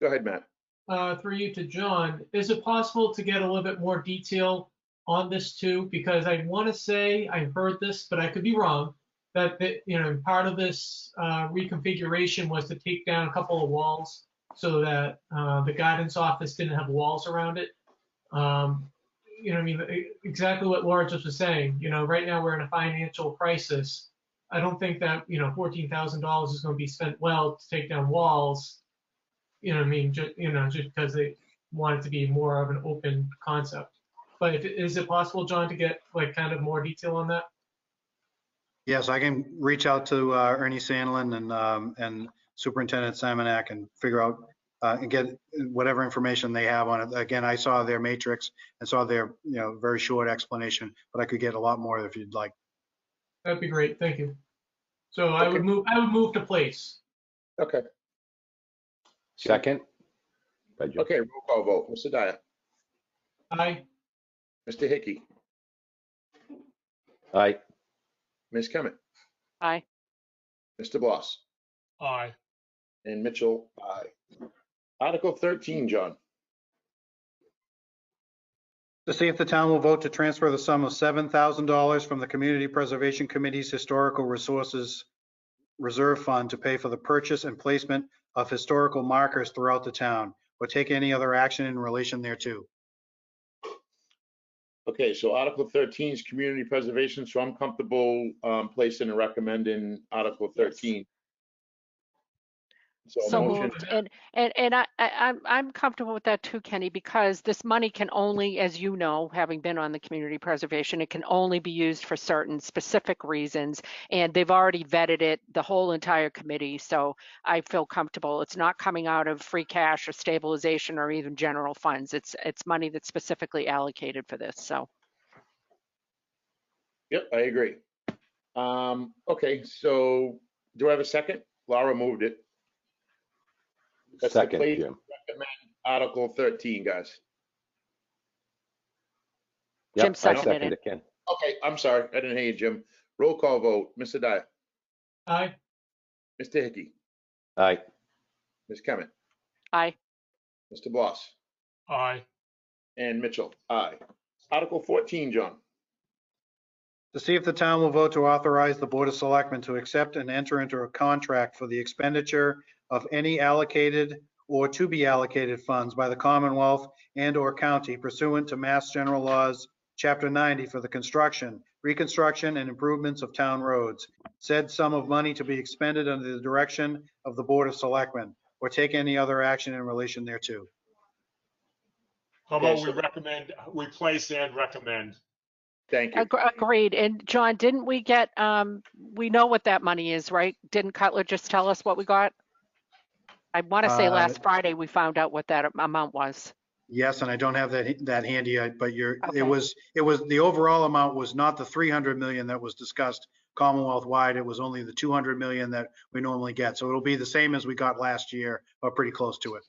Go ahead, Matt. uh, through you to John, is it possible to get a little bit more detail on this too? Because I want to say, I heard this, but I could be wrong, that, the- you know, part of this uh, reconfiguration was to take down a couple of walls so that uh, the guidance office didn't have walls around it. Um, You know, I mean, e- exactly what Laura just was saying, you know, right now we're in a financial crisis. I don't think that, you know, $14,000 is going to be spent well to take down walls you know, what I mean, just, you know, just because they want it to be more of an open concept. But if, is it possible, John, to get like kind of more detail on that? Yes, I can reach out to uh, Ernie Sandlin and, um, and Superintendent Simonak and figure out, uh, and get whatever information they have on it. Again, I saw their matrix and saw their, you know, very short explanation, but I could get a lot more if you'd like. That'd be great. Thank you. So I Okay. would move, I would move to place. Okay, Second? By Jim. okay, roll call vote. Mr. Dyer, Aye. Mr. Hickey, Aye. Ms. Kement, Aye. Mr. Bloss, aye, and Mitchell, aye. Article 13, John. To see if the town will vote to transfer the sum of $7,000 from the Community Preservation Committee's Historical Resources Reserve Fund to pay for the purchase and placement of historical markers throughout the town, or take any other action in relation thereto. Okay, so Article 13 is community preservation, so I'm comfortable um, placing and recommending Article 13. So a So motion, moved. And, and, and I, I, I'm, I'm comfortable with that too, Kenny, because this money can only, as you know, having been on the community preservation, it can only be used for certain specific reasons. And they've already vetted it, the whole entire committee, so I feel comfortable. It's not coming out of free cash or stabilization or even general funds. It's, it's money that's specifically allocated for this, so. yep, I agree. Um, Okay, so do I have a second? Laura moved it. That's the Second, place- Jim. Article 13, guys. Yep, Jim I seconded second it. it, Ken. Okay, I'm sorry, I didn't hear you, Jim. Roll call vote, Mr. Dyer, Aye. Mr. Hickey, Aye. Ms. Kement, Aye. Mr. Bloss, aye, and Mitchell, aye. Article 14, John. To see if the town will vote to authorize the Board of Selectmen to accept and enter into a contract for the expenditure of any allocated or to be allocated funds by the Commonwealth and/or county pursuant to Mass General Laws, Chapter 90, for the construction, reconstruction, and improvements of town roads. Said sum of money to be expended under the direction of the Board of Selectmen, or take any other action in relation thereto. how about Okay, we so- recommend, we place and recommend, Thank you. Ag- Agreed. And John, didn't we get, um, we know what that money is, right? Didn't Cutler just tell us what we got? I want to say Uh, last Friday, we found out what that am- amount was. Yes, and I don't have that, that handy, I- but you're, Okay. it was, it was, the overall amount was not the 300 million that was discussed Commonwealth-wide. It was only the 200 million that we normally get. So it'll be the same as we got last year, or pretty close to it.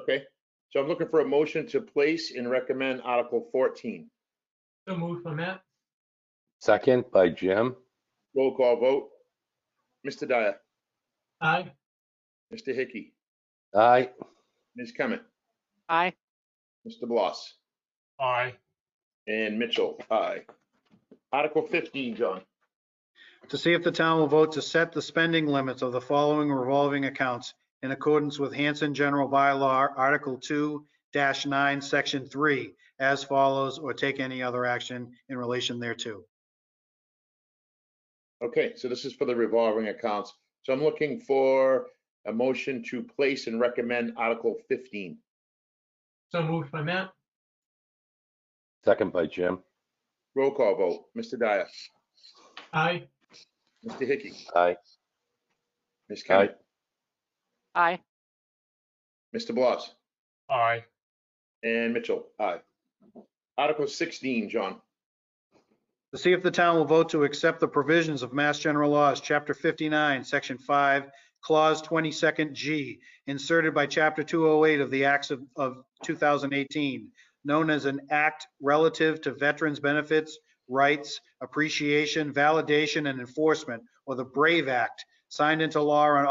Okay, so I'm looking for a motion to place and recommend Article 14. So moved by Matt. Second by Jim. Roll call vote. Mr. Dyer, Aye. Mr. Hickey, Aye. Ms. Kement, Aye. Mr. Bloss, aye, and Mitchell, aye. Article 15, John. To see if the town will vote to set the spending limits of the following revolving accounts in accordance with Hanson General Bylaw, Article 2-9, Section 3, as follows, or take any other action in relation thereto. Okay, so this is for the revolving accounts. So I'm looking for a motion to place and recommend Article 15. So moved by Matt. Second by Jim. Roll call vote. Mr. Dyer, Aye. Mr. Hickey, Aye. Ms. Kement, Aye. Mr. Bloss, aye, and Mitchell, aye. Article 16, John. To see if the town will vote to accept the provisions of Mass General Laws, Chapter 59, Section 5, Clause 22nd G, inserted by Chapter 208 of the Acts of- of 2018, known as an act relative to veterans' benefits, rights, appreciation, validation, and enforcement, or the BRAVE Act, signed into law on